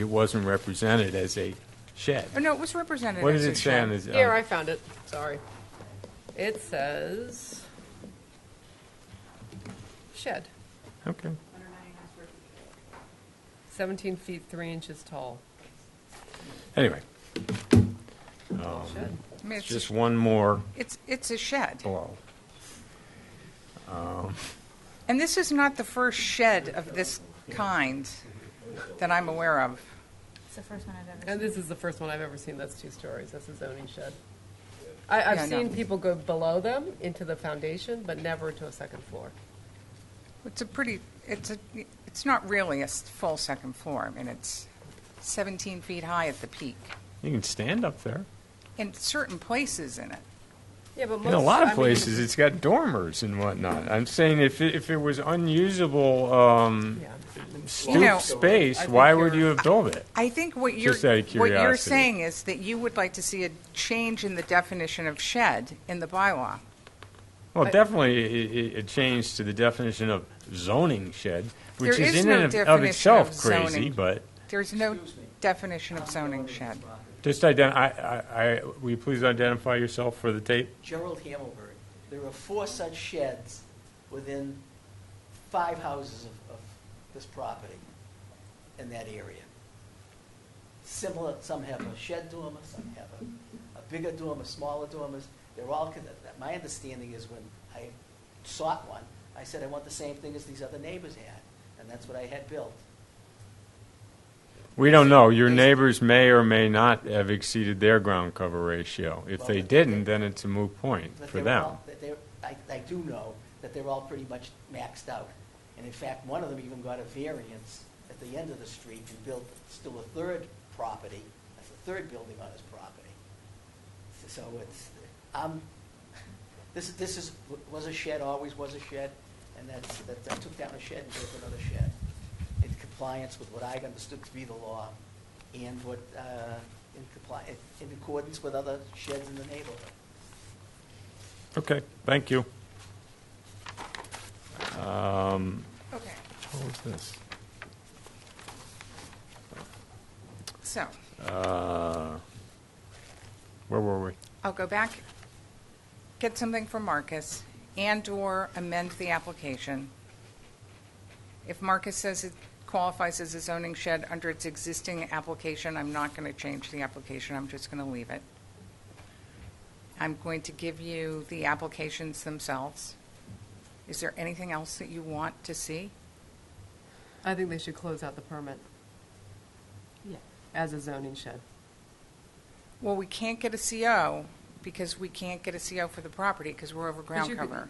It wasn't represented as a shed. Oh, no, it was represented. What as did a it say on uh, shed. this? Here, I found it, sorry. It says shed, Okay. 17 feet, 3 inches tall. Anyway, Shed. I mean, it's, just Oh. one more it's, it's a shed. blow. And this is not the first shed of this kind that I'm aware of. It's the first one I've ever seen. And this is the first one I've ever seen that's two stories, that's a zoning shed. I, I've Yeah, I know. seen people go below them into the foundation, but never to a second floor. It's a pretty, it's a, it's not really a s- full second floor. I mean, it's 17 feet high at the peak You can stand up there. in certain places in it. Yeah, but In most. a lot I of mean, places, it's got dormers and whatnot. I'm saying if it, if it was unusable um, Yeah. You know- stoop I space, think why would you're- you have built it? I think what you're, Just out of what you're curiosity. saying is that you would like to see a change in the definition of shed in the bylaw. Well, definitely, it, it changed to the definition of zoning shed, which There is is in no and of- of definition itself of crazy, zoning. but There's no definition of zoning shed. just ident, I, I, I, will you please identify yourself for the tape? Gerald Hamelberg. There are four such sheds within five houses of, of this property in that area. Similar, some have a shed dormer, some have a, a bigger dormer, smaller dormers. They're all, con- that- my understanding is when I sought one, I said I want the same thing as these other neighbors had, and that's what I had built. We don't know. Your neighbors may or may not have exceeded their ground cover ratio. If Well, they but- didn't, then it's a moot point But for they're them. all- that they're- I, I do know that they're all pretty much maxed out. And in fact, one of them even got a variance at the end of the street and built still a third property, that's a third building on his property. So- So it's, um, this, this is, was a shed, always was a shed, and that's, that, I took down a shed and built another shed in compliance with what I understood to be the law and what, uh, in compli, in accordance with other sheds in the neighborhood. Okay, thank you. Um, Okay, What was this? so Uh, Where were we? I'll go back, get something from Marcus, and/or amend the application. If Marcus says it qualifies as a zoning shed under its existing application, I'm not going to change the application, I'm just going to leave it. I'm going to give you the applications themselves. Is there anything else that you want to see? I think they should close out the permit. Yeah. As a zoning shed. Well, we can't get a CO because we can't get a CO for the property because we're over ground you could- cover.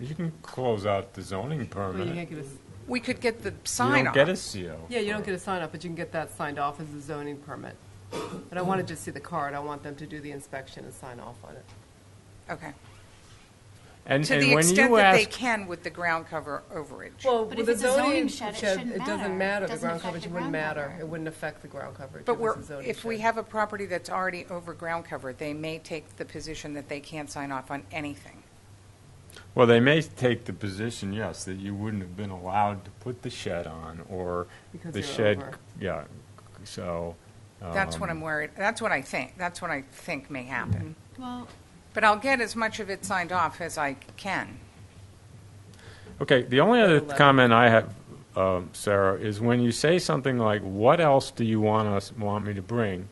You can close out the zoning Well, you can't permit. get a, We could get the You sign don't off. get a CO. yeah, you don't get a sign off, but you can get that signed off as a zoning permit. But I want to just see the card, I want them to do the inspection and sign off on it. Okay. And To and the when extent you that they ask, can with the ground cover overage. Well, But with if a it's a zoning zoning shed, it shed, shouldn't it doesn't matter. matter, the Doesn't ground affect coverage the wouldn't ground matter, cover. it wouldn't affect the ground coverage. But if we're, it's a zoning if we shed. have a property that's already over ground cover, they may take the position that they can't sign off on anything. well, they may take the position, yes, that you wouldn't have been allowed to put the shed on, or Because the they're shed, over. yeah, so. That's what um, I'm worried, that's what I think, that's what I think may happen. Well, But I'll get as much of it signed off as I can. Okay, the only other Eleven. comment I have, um, Sarah, is when you say something like, "What else do you want us want me to bring?"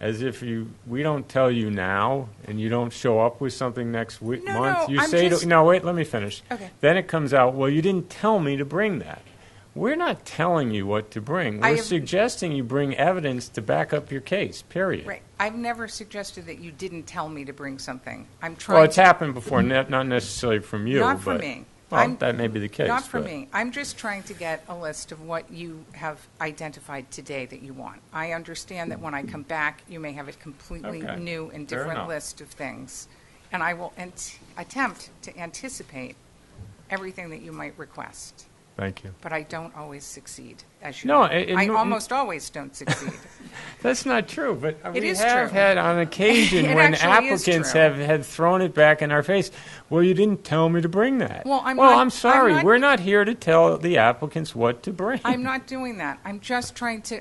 As if you we don't tell you now, and you don't show up with something next week, No, month. no, you I'm say, just- to, "No, wait, let me finish." Okay. Then it comes out, "Well, you didn't tell me to bring that." We're not telling you what to bring. I We're have- suggesting you bring evidence to back up your case. Period. Right, I've never suggested that you didn't tell me to bring something. I'm trying to. Well, it's happened before, ne- not necessarily from you, Not from but- me. Well, I'm- that may be the case. Not for but- me. I'm just trying to get a list of what you have identified today that you want. I understand that when I come back, you may have a completely Okay. new and Fair different enough. list of things. And I will ant- attempt to anticipate everything that you might request, Thank you. but I don't always succeed, as you No, know. it- it- I no- almost always don't succeed. That's not true, but uh, It we is have true. had on occasion It when actually is applicants true. have, have thrown it back in our face. Well, you didn't tell me to bring that. Well, I'm well, not- I'm sorry. I'm not- We're not here to tell the applicants what to bring. I'm not doing that. I'm just trying to